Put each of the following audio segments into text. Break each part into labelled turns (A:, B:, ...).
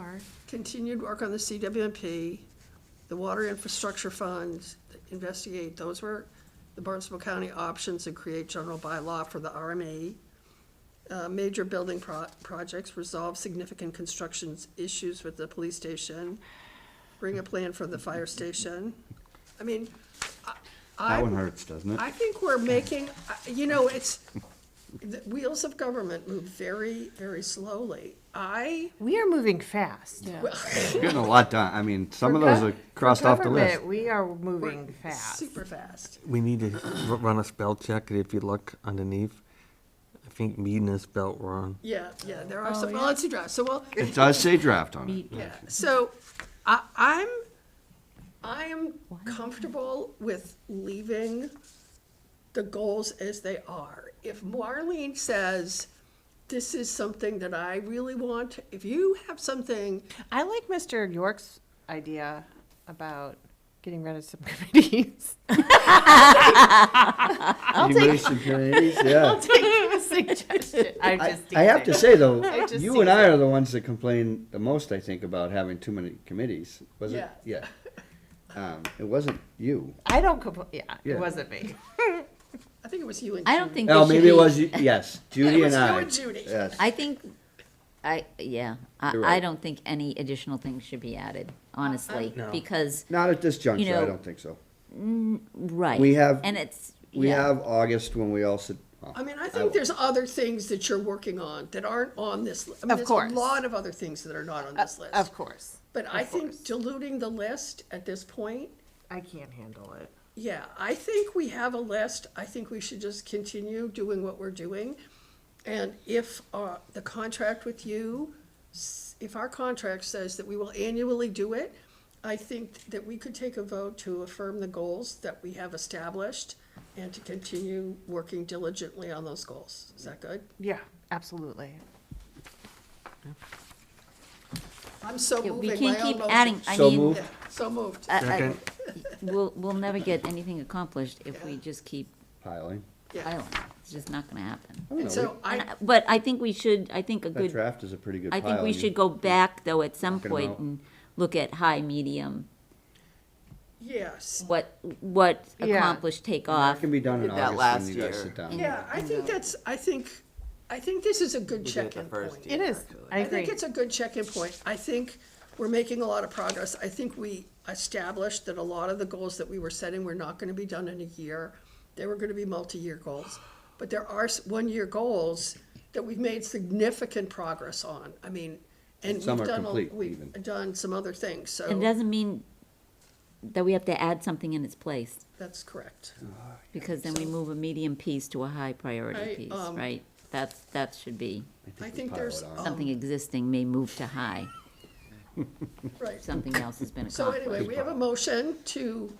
A: sorry.
B: Continued work on the CWMP, the Water Infrastructure Fund, investigate, those were the Barnstable County options and create general bylaw for the RMA. Uh, major building pro- projects, resolve significant constructions issues with the police station, bring a plan for the fire station. I mean, I.
C: That
B: I-
C: one hurts, doesn't it?
B: I think we're making, uh, you know, it's, the wheels of government move very, very slowly. I,
A: We are moving fast.
C: You're Getting a lot done. I mean, some of those
A: For
C: are
A: gov- for
C: crossed off the list.
A: government, We are moving fast.
B: super fast.
D: We need to r- run a spell check, and if you look underneath, I think Meaden is spelled wrong.
B: Yeah, yeah, there
A: Oh,
B: are some, well, let's see, draft, so well,
C: It does say draft on it.
B: yeah, so I, I'm, I am comfortable with leaving the goals as they are. If Marlene says, this is something that I really want, if you have something
A: I like Mr. York's idea about getting rid of some committees.
C: I'll take. Yeah.
A: Take a suggestion. I'm
C: I,
A: just
C: I have to
A: teasing.
C: say though,
A: just
C: you and I are the ones that complain the most, I think, about having too many committees. Was it? Yeah. Um, it wasn't you.
A: I don't compl- yeah,
C: Yeah.
A: it wasn't me.
B: I think it was you and
E: I don't
B: Judy.
E: think.
C: Oh,
E: we should
C: maybe it
E: be-
C: was you. Yes, Judy
B: It was
C: and
B: you
C: I.
B: and Judy.
C: Yes.
E: I think, I, yeah, I,
C: You're
E: I
C: right.
E: don't think any additional things should be added, honestly,
D: No.
E: because,
C: Not at this juncture, I
E: know,
C: don't think so.
E: right.
C: We have-
E: And it's,
C: We
E: yeah.
C: have August when we all sit. well,
B: I mean, I
C: will-
B: think there's other things that you're working on that aren't on this. li- I mean,
A: Of
B: there's
A: course.
B: A lot of other things that are not on this list.
A: Uh, Of course.
B: But I think diluting the list at this point,
A: I can't handle it.
B: yeah, I think we have a list. I think we should just continue doing what we're doing. And if, uh, the contract with you, s- if our contract says that we will annually do it, I think that we could take a vote to affirm the goals that we have established and to continue working diligently on those goals. Is that good?
A: Yeah, absolutely.
B: I'm so
E: Yeah, We
B: moving
E: can't
B: my own
E: keep
B: motion.
E: adding, Uh, I
C: So
E: mean,
C: moved.
B: Yeah, So moved.
E: I- I-
D: Second.
E: we'll, we'll never get anything accomplished if we just keep
C: Piling.
B: Yeah.
E: piling. It's just not gonna happen.
C: I don't know,
B: And so
C: we-
B: I,
E: And I- But I think we should, I think a
C: That
E: good,
C: draft is a pretty good
E: I
C: pile.
E: think we
C: and you-
E: should go back, though, at some
C: Knocking 'em
E: point
C: out.
E: and look at high, medium,
B: yes,
E: what, what
A: Yeah.
E: accomplished take
C: It
E: off.
C: can be done in
F: Did that
C: August
F: last
C: when you guys
F: year.
C: sit down.
B: yeah, I think that's, I think, I think this is a good
F: We did it the
B: check-in
F: first
B: point.
F: year.
A: It is.
F: actually.
A: I
B: I
A: agree.
B: think it's a good check-in point. I think we're making a lot of progress. I think we established that a lot of the goals that we were setting were not gonna be done in a year. They were gonna be multi-year goals. But there are s- one-year goals that we've made significant progress on. I mean, and we've
C: Some are
B: done, a-
C: complete even.
B: we've done some other things,
E: It
B: so
E: doesn't mean that we have to add something in its place.
B: that's correct.
E: Because then we move a medium piece to a high
B: I,
E: priority piece,
B: um,
E: right? That's, that should be,
B: I
C: we
B: think
C: pile
B: there's,
C: it on.
B: um,
E: something existing may move to high,
B: right.
E: something else has been
B: So anyway,
E: accomplished.
B: we have a motion to,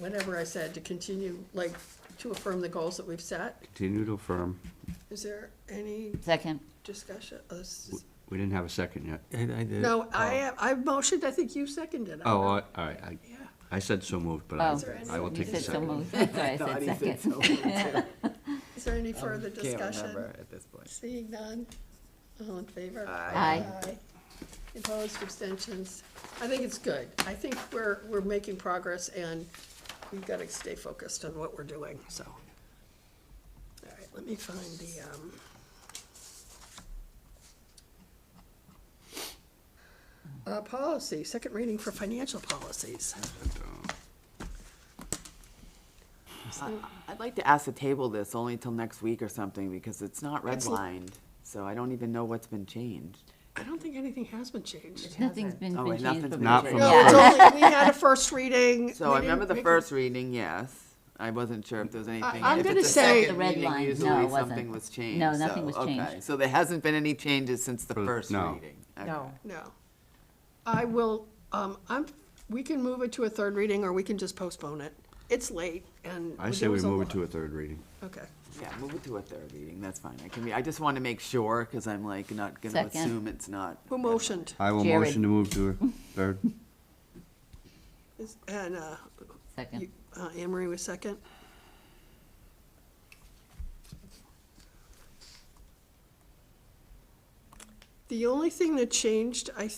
B: whatever I said, to continue, like, to affirm the goals that we've set.
C: Continue to affirm.
B: Is there any
E: Second,
B: discussion? Oh, this is-
C: We didn't have a second yet.
D: I, I did.
B: No, I, I motioned, I think you seconded. I
C: Oh,
B: don't-
C: all all right. I,
B: Yeah.
C: I said so moved, but
E: Oh. Is
B: there
C: I,
B: any-
C: I will
E: you
C: take the
E: said so
C: second.
E: moved, that's why I
F: Thought
E: said
F: he said
E: second.
F: so.
B: Is there any further
F: Um, Can't
B: discussion?
F: remember at this point.
B: Seeing none, all in favor?
E: Aye.
B: Aye. Opposed, abstentions? I think it's good. I think we're, we're making progress and we've got to stay focused on what we're doing, so. All right, let me find the, um. Uh, policy, second reading for financial policies.
F: I'd like to ask to table this only until next week or something because it's not redlined. So I don't even know what's been changed.
B: I don't think anything has been changed.
E: Nothing's been,
F: Oh,
E: been
F: wait,
E: changed.
F: nothing's
E: but
F: been
E: we
C: Not
E: should-
C: from
B: No,
C: the
B: it's
C: first.
B: only, we had a first reading.
F: So I
B: We didn't
F: remember the
B: make a-
F: first reading, yes. I wasn't sure if there was anything.
B: I'm
F: if
B: gonna
F: it's a
B: say-
F: second
E: The red
F: reading,
E: line. No,
F: usually
E: it wasn't.
F: Something was changed.
E: No, nothing
F: so-
E: was
F: okay.
E: changed.
F: So there hasn't been any changes since the
C: For-
F: first
C: no.
F: reading. Okay.
A: No.
B: No. I will, um, I'm, we can move it to a third reading, or we can just postpone it. It's late, and.
C: I say we move it to
B: it.
C: a third reading.
B: Okay.
F: Yeah, move it to a third reading, that's fine. I can be, I just want to make sure because I'm like not going to
E: Second.
F: assume it's not.
B: Who motioned?
C: I will
E: Jared.
C: motion to move to a third.
B: Is- And, uh,
E: Second,
B: you- uh, Anne Marie was second? The only thing that changed, I